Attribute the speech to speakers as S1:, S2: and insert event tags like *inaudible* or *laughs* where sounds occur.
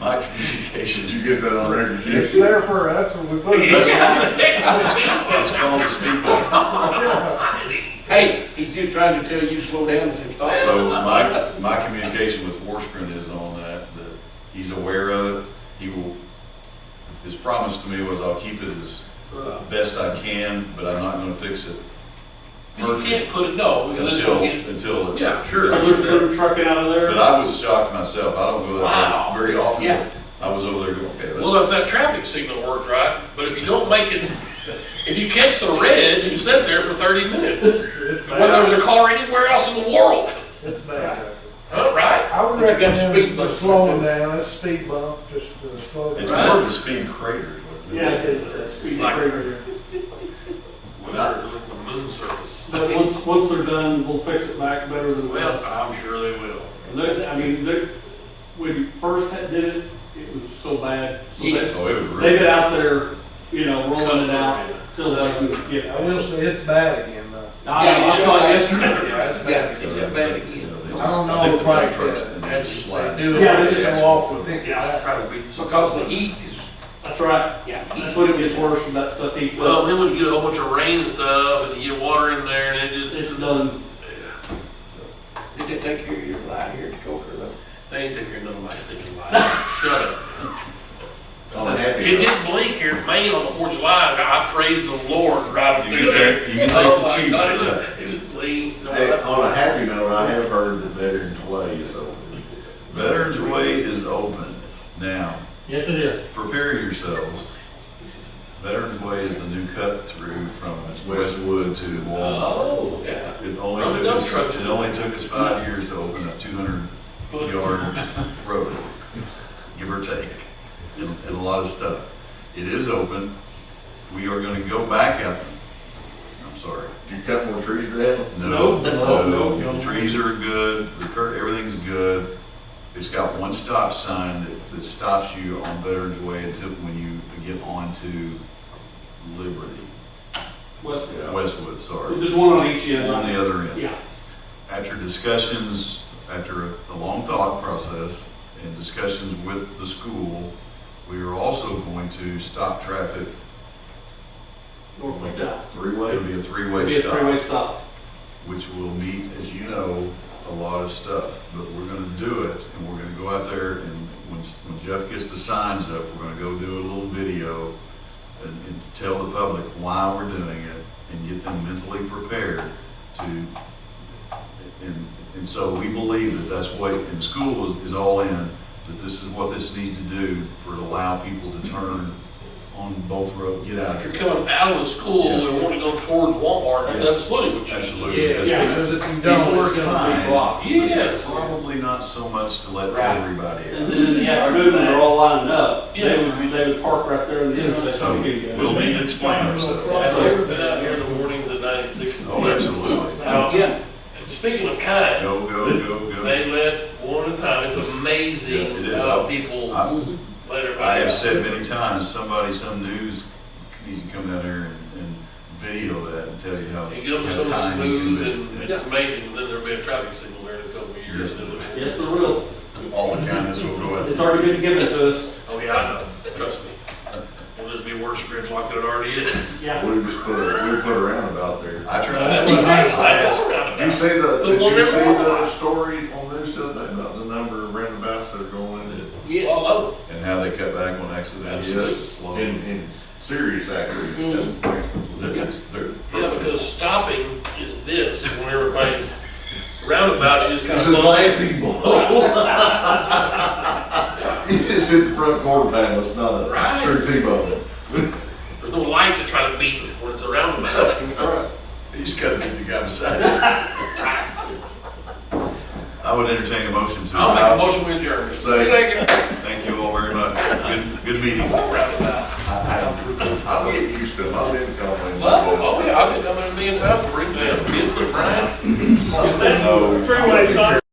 S1: my communications.
S2: Did you get that on record?
S3: It's there for us, and we put it.
S1: That's It's called the speed.
S4: Hey, he's just trying to tell you slow down with his thoughts.
S1: So my, my communication with Forsgren is on that, that he's aware of it. He will, his promise to me was I'll keep it as best I can, but I'm not gonna fix it
S4: You can't put it, no, because that's
S1: until,
S4: gonna get,
S1: until it's.
S4: Yeah,
S5: Sure, they're, they're trucking out of
S1: But
S5: there.
S1: I was shocked myself. I don't go that
S4: Wow.
S1: way very often.
S4: Yeah.
S1: I was over there going, okay,
S6: Well,
S1: that's,
S6: if that traffic signal worked right, but if you don't make it, if you catch the red, you sit there for thirty minutes.
S5: It's
S6: Whether
S5: bad.
S6: there's a car anywhere else in the world,
S5: It's bad.
S6: huh, right?
S3: I would
S4: But you got the speed
S3: recommend
S4: bump.
S3: just slowing down, it's speed bump, just to slow
S1: it's
S3: down.
S1: more of a speed crater. is what it is.
S5: Yeah, it is. It's pretty
S6: like-
S5: crazy.
S6: Without the moon surface.
S5: But once, once they're done, we'll fix it back better than we
S6: Well,
S5: have.
S6: I'm sure they will.
S5: Look, I mean, look, when you first had- did it, it was so bad. So
S4: Yeah.
S5: they,
S1: Oh, it was really.
S5: they get out there, you know, rolling it out till they can get
S3: I
S5: out.
S3: will say it's bad again, though.
S5: I I saw it yesterday.
S3: Yeah, it's
S4: yeah,
S3: bad.
S4: it's bad again.
S3: I don't
S1: I
S3: know
S1: think
S3: if
S1: the
S3: I,
S1: big trucks and
S3: uh,
S1: they just
S3: they
S1: slide.
S3: do,
S5: Yeah,
S3: it.
S5: they
S3: they
S5: just-
S3: just walk with it.
S6: Yeah, I'll try to beat some.
S4: Because the heat is,
S5: That's right. Yeah. That's when it gets worse when that stuff heats
S6: Well,
S5: up.
S6: then when you get a whole bunch of rain and stuff, and you get water in there, and it
S5: It's
S6: just,
S5: done.
S4: did they take care of your line here at Coker though?
S6: they ain't taking none of my stinking lights. Shut up.
S1: I'm happy.
S6: It didn't blink here in Maine on the Fourth of July, and I praised the Lord driving
S1: You
S6: through
S1: can
S6: there.
S1: take, you can take
S6: Oh
S1: the
S6: my
S1: chief
S6: God,
S1: for
S6: it
S1: that.
S6: was- It was bleeding. so
S2: Hey,
S6: I-
S2: on a happy note, I have heard that Veterans Way is open.
S1: Veterans Way is open now.
S5: Yes, it is.
S1: Prepare yourselves. Veterans Way is the new cut through from Westwood to Walnut.
S6: Oh, yeah.
S1: It only
S6: Run the
S1: took
S6: dump
S1: us,
S6: truck.
S1: it only took us five years to open a two hundred
S6: *laughs*
S1: yard road, give or take, and, and a lot of stuff. It is open. We are gonna go back out. I'm sorry.
S2: Did you cut more trees down?
S1: No,
S5: No, no,
S1: no,
S5: no.
S1: the trees are good, the cur, everything's good. It's got one stop sign that, that stops you on Veterans Way until, when you get onto Liberty,
S5: West,
S1: Westwood, sorry,
S5: there's one on each end.
S1: on the other end.
S5: Yeah.
S1: After discussions, after a long thought process and discussions with the school, we are also going to stop traffic.
S5: North and south.
S1: It'll
S2: Three-way?
S1: be a
S5: It'll
S1: three-way
S5: be a
S1: stop.
S5: three-way stop.
S1: which will meet, as you know, a lot of stuff, but we're gonna do it, and we're gonna go out there, and when, when Jeff gets the signs up, we're gonna go do a little video and, and to tell the public why we're doing it, and get them mentally prepared to, and, and so we believe that that's what, and school is, is all in, that this is what this needs to do for to allow people to turn on both roads, get out of
S6: If you're
S1: here.
S6: coming out of the school and want to go toward Walmart, that's absolutely what you should do.
S1: Absolutely. That's what-
S3: Because if you
S1: People
S3: don't,
S1: are
S3: it's gonna
S1: kind.
S3: be
S5: blocked.
S6: Yes.
S1: Probably not so much to let
S4: Right.
S1: everybody
S5: And
S1: out.
S5: then, yeah, if they're moving, they're all lined up.
S6: Yeah.
S5: They would be, they would park right there in the
S1: So
S5: intersection.
S1: we'll need to explain ourselves.
S6: Have you ever been out here in the mornings at ninety-six and ten?
S1: Oh, absolutely.
S6: Now,
S4: Yeah.
S6: and Speaking of kind,
S1: Go, go, go,
S6: they
S1: go.
S6: let one at a time, it's amazing
S1: It is.
S6: how people
S1: I-
S6: let
S1: I
S6: everybody
S1: have
S6: out.
S1: said many times, somebody, some news needs to come down here and, and video that and tell you how.
S6: And get them
S1: how
S6: so
S1: kind you can
S6: smooth
S1: be.
S6: and it's amazing, and then there'll be a traffic signal there in a couple of years.
S1: Yes.
S6: and it'll-
S5: Yes, there will.
S1: All the kindness will go out.
S5: It's already been given to us.
S6: Oh, yeah, I know, trust me. Will this be worse gridlock than it already is?
S5: Yeah.
S2: We just put, a- we put a roundabout there.
S1: I try.
S6: *laughs* I just-
S2: Did you see the,
S6: But
S2: did
S6: we'll
S2: you
S6: never
S2: see
S6: know.
S2: the story on news
S1: uh,
S2: the other day about the number of roundabouts that are going in?
S4: Yes,
S6: All over.
S1: And how they cut back on accidents.
S6: Yes.
S2: In, in serious accidents.
S1: That's- they're-
S6: Yeah, because stopping is this, when everybody's roundabout, you just kind
S2: It's
S6: of
S2: a
S6: slow.
S2: glancing
S1: *laughs*
S2: blow. It's in the front quarter panel, it's not a
S6: Right.
S2: true T-bone.
S6: There's no light to try to beat when it's a roundabout.
S1: You just gotta get the guy beside you. I would entertain a motion to.
S6: I'll make a motion with adjourn.
S1: Say, thank you all very much. Good, good meeting.
S6: Roundabout.
S2: I don't get used to them, I've been complaining.
S6: Well, oh yeah, I've been coming to me and Val for it, man, me and Brian.
S1: No.
S5: Three-way stop.